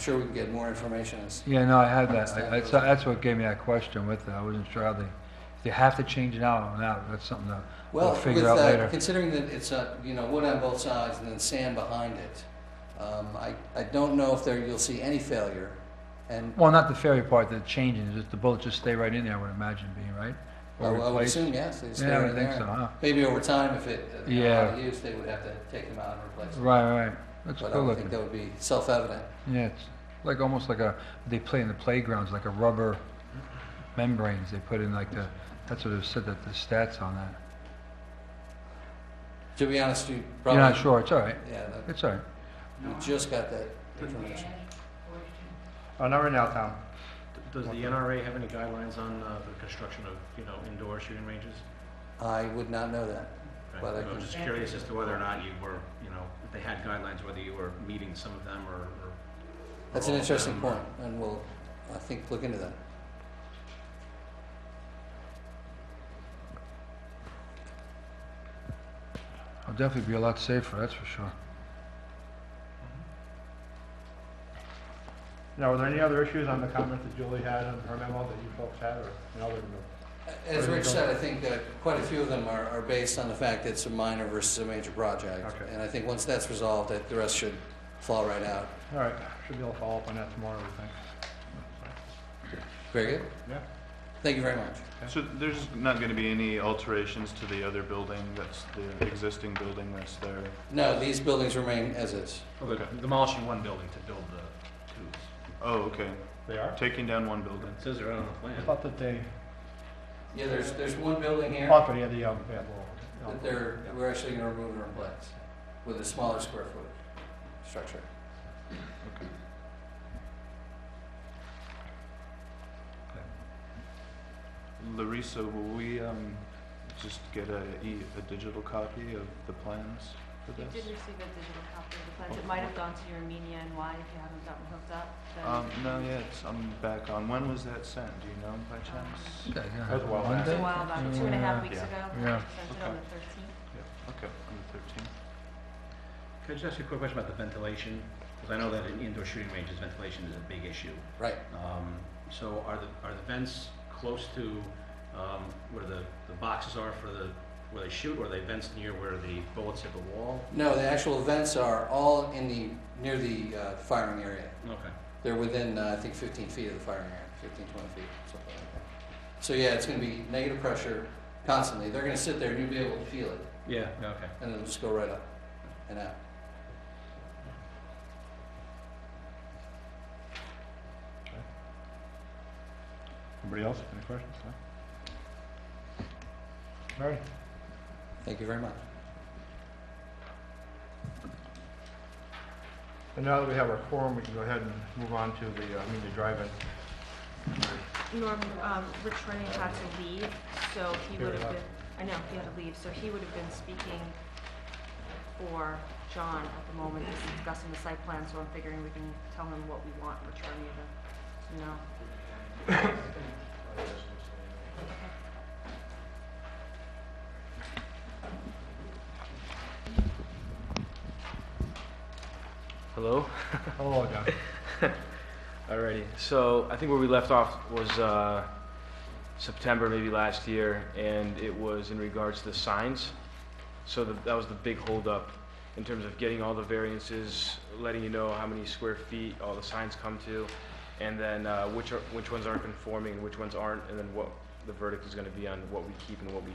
Sure we can get more information as, Yeah, no, I had that. I- I- so That's what gave me that question with it. I wasn't sure how they, if they have to change it out or not. That's something that we'll well, with, figure out uh, later. considering that it's, uh, you know, wood on both sides and then sand behind it, um, I, I don't know if there, you'll see any failure. And Well, not the failure part, the changing, just the bullets just stay right in there, I would imagine being, right? Oh, I Or I would replaced? assume, yes, they stay Yeah, I in would think so, there. huh? Maybe over time, if it, uh, Yeah. out of use, they would have to take them out and replace them. Right, right. That's But I cool would think looking. that would be self-evident. Yeah, it's like, almost like a, they play in the playgrounds, like a rubber membranes. They put in like the, that's what it said, that the stats on that. To be honest, you You're probably. not sure, it's all right. Yeah, that- It's all right. we just got that information. Oh, not right now, Tom. Does the NRA have any guidelines on uh, the construction of, you know, indoor shooting ranges? I would not know that. Right. Well, I I'm can- just curious as to whether or not you were, you know, if they had guidelines, whether you were meeting some of them or. or- That's an or all of interesting them, or- point, and we'll, I think, look into that. I'll definitely be a lot safer, that's for sure. Now, were there any other issues on the comment that Julie had on her memo that you folks had, or, you know, other than the- As Rich said, I think uh, quite a few of them are are based on the fact that it's a minor versus a major project. Okay. And I think once that's resolved, that the rest should fall right out. all right, should be able to follow up on that tomorrow, I think. Very good. Yeah. Thank you very much. So there's not going to be any alterations to the other building that's, the existing building that's there? No, these buildings remain as is. Well, they're Demolishing one building to build the two. Oh, okay. They are? Taking down one building. It says it right on the I plan. thought that they, Yeah, there's, there's one building I here thought they had the, um, they had little. you know, that they're, we're actually going to remove and replace with a smaller square foot structure. Larissa, will we um, just get a, e- a digital copy of the plans for You did this? receive a digital copy of the plans. It might have gone to your Armenia and why if you haven't gotten hooked up. then- Um, no, yeah, it's, I'm back on. When was that sent? Do you know by chance? Yeah, yeah. That's well It was Monday? a while back, two and a half Yeah. weeks ago. Yeah. Sent it on the 13th. Okay, on Could I just ask you a quick question about the ventilation? Because I know that in indoor shooting ranges, ventilation is a big issue. Right. Um, So are the, are the vents close to um, where the, the boxes are for the, where they shoot, or are they vents near where the bullets hit the wall? No, the actual vents are all in the, near the uh, firing area. Okay. They're within, uh, I think, 15 feet of the firing area, 15, 20 feet, something like that. So yeah, it's going to be negative pressure constantly. They're going to sit there and you'll be able to feel it, Yeah, okay. and it'll just go right up and out. Anybody else, any questions? No? All right, Thank you very much. and now that we have our quorum, we can go ahead and move on to the, uh, I mean, the drive-in. Norm, um, Rich Rennie had to leave, so he Here would we have are. been, I know, he had to leave, so he would have been speaking for John at the moment, he's discussing the site plan, so I'm figuring we can tell him what we want Rich Rennie to, you know. Hello? Hello, John. Alrighty. So I think where we left off was uh, September, maybe last year, and it was in regards to the signs. So the, that was the big holdup in terms of getting all the variances, letting you know how many square feet all the signs come to, and then uh, which are, which ones aren't conforming and which ones aren't, and then what the verdict is going to be on what we keep and what we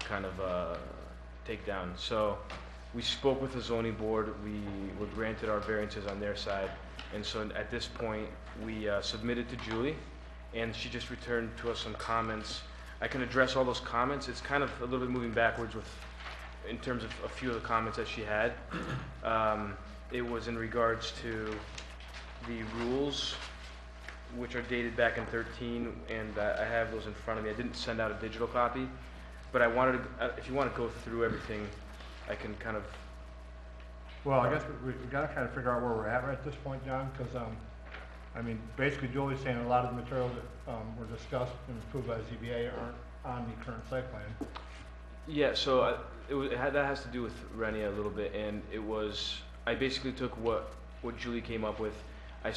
kind of uh, take down. So we spoke with the zoning board. We were granted our variances on their side. And so at this point, we uh, submitted to Julie, and she just returned to us some comments. I can address all those comments. It's kind of a little bit moving backwards with, in terms of a few of the comments that she had. Um, It was in regards to the rules, which are dated back in 13, and I I have those in front of me. I didn't send out a digital copy, but I wanted, to- uh, if you want to go through everything, I can kind of Well, I guess we, we gotta kind of figure out where we're at right at this point, John, because, um, I mean, basically Julie's saying a lot of the materials that, um, were discussed and approved by ZBA aren't on the current site plan. Yeah, so I, it was, it had, that has to do with Renia a little bit, and it was I basically took what what Julie came up with